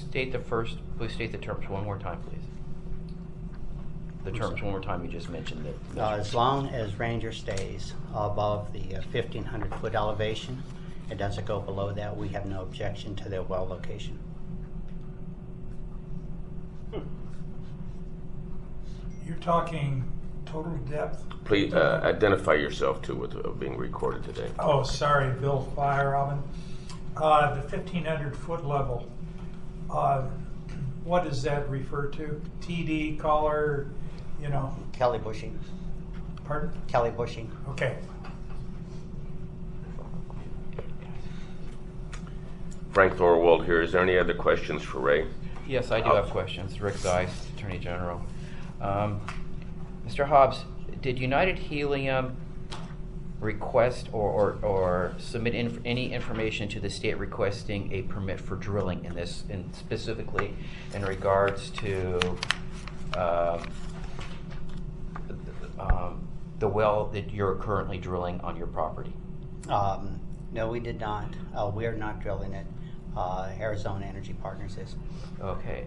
state the first, please state the terms one more time, please. The terms one more time, you just mentioned that. Uh, As long as Ranger stays above the uh, fifteen hundred foot elevation, it doesn't go below that, we have no objection to their well location. You're talking total depth. Please uh, identify yourself too with uh, being recorded today. Oh, sorry, Bill Fire Robin. Uh, the 1500 foot level. Uh, what does that refer to? TD, collar, you know, Kelly bushing, pardon? Kelly bushing. Okay. Frank Thorwald here. Is there any other questions for Ray? Yes, I do have questions. Rick Zeiss, Attorney General. Um, Mr. Hobbs, did United Helium request or, or, or submit inf- any information to the state requesting a permit for drilling in this, in specifically in regards to, um, um, the well that you're currently drilling on your property? Um, no, we did not, uh, we are not drilling it, uh, Arizona Energy Partners is. Okay,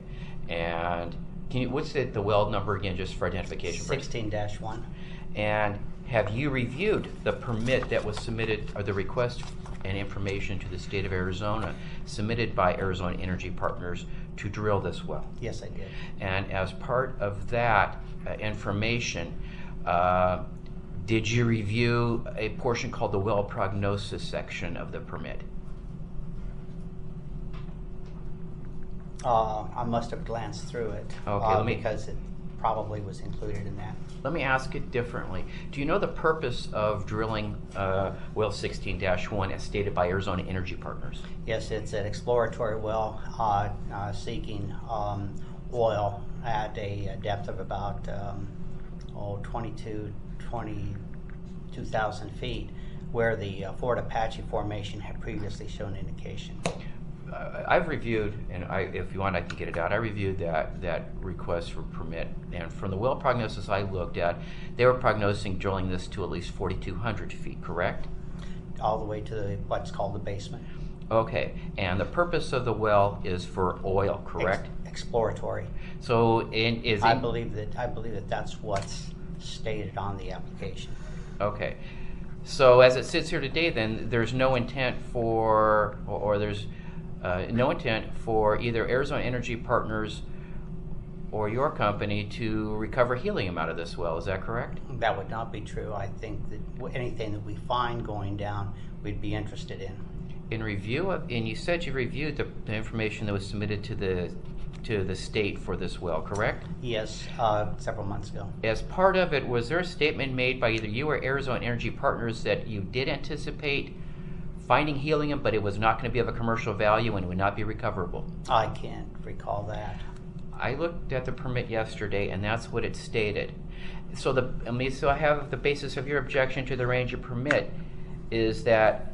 and can you, what's the, the well number again, just for identification? purposes? Sixteen dash one, And have you reviewed the permit that was submitted, or the request and information to the state of Arizona submitted by Arizona Energy Partners to drill this well? yes, I did. And as part of that uh, information, uh, did you review a portion called the well prognosis section of the permit? Uh, I must have glanced through it. Okay, uh, let me- Because it probably was included in that. Let me ask it differently. Do you know the purpose of drilling uh, well 16-1 as stated by Arizona Energy Partners? Yes, it's an exploratory well uh, uh, seeking um, oil at a depth of about um, oh, 22, 22,000 feet, where the uh, Fort Apache Formation had previously shown indication. uh, I've reviewed, and I, if you want, I can get it out. I reviewed that that request for permit, and from the well prognosis I looked at, they were prognosing drilling this to at least 4,200 feet, correct? All the way to the, what's called the basement. Okay, and the purpose of the well is for oil, Ex- correct? Exploratory. So, in is I it- believe that, I believe that that's what's stated on the application. Okay. So as it sits here today, then, there's no intent for, or- or there's uh, no intent for either Arizona Energy Partners or your company to recover helium out of this well, is that correct? That would not be true. I think that w- anything that we find going down, we'd be interested in. In review of, and you said you reviewed the the information that was submitted to the, to the state for this well, correct? Yes, uh, several months ago. As part of it, was there a statement made by either you or Arizona Energy Partners that you did anticipate finding helium, but it was not going to be of a commercial value and would not be recoverable? I can't recall that. I looked at the permit yesterday, and that's what it stated. So the, I mean, so I have the basis of your objection to the Ranger permit is that,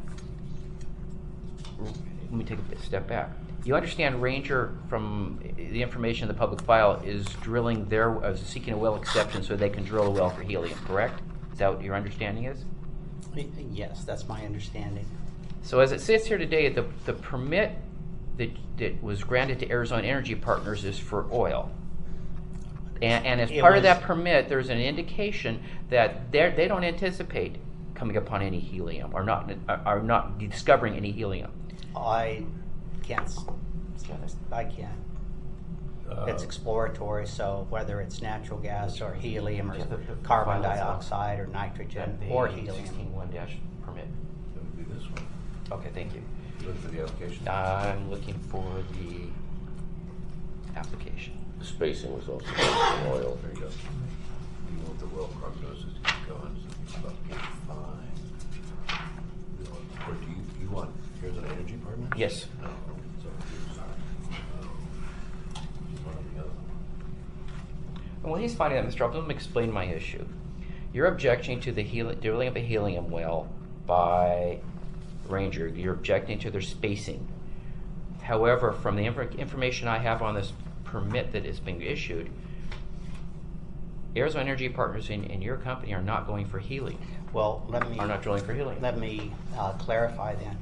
let me take a step back. You understand Ranger from the information in the public file is drilling their, uh, seeking a well exception so they can drill a well for helium, correct? Is that what your understanding is? Y- Yes, that's my understanding. So as it sits here today, the, the permit that, that was granted to Arizona Energy Partners is for oil. And, and as It part of that was- permit, there's an indication that they're, they don't anticipate coming upon any helium or not, are not discovering any helium. I can't, s- I can't. Uh, Uh, It's exploratory, so whether it's natural gas or helium or Yeah, the- the carbon file itself. dioxide or nitrogen or helium. one dash permit. That would be this one. Okay, thank you. You Look for the application. I'm looking for the application. The spacing was also based on oil. There you go. You want the well prognosis to keep going, so it's about forty-five. You want- Or do you, you want, here's an energy Oh, partner? Yes. No, so it's, uh, one or the other. And while he's finding that, Mr. Upton, let me explain my issue. You're objecting to the heli- drilling of a helium well by Ranger. You're objecting to their spacing. However, from the infor- information I have on this permit that is being issued, Arizona Energy Partners and, and your company are not going for helium, Well, let me, are not drilling for helium. let me uh, clarify then.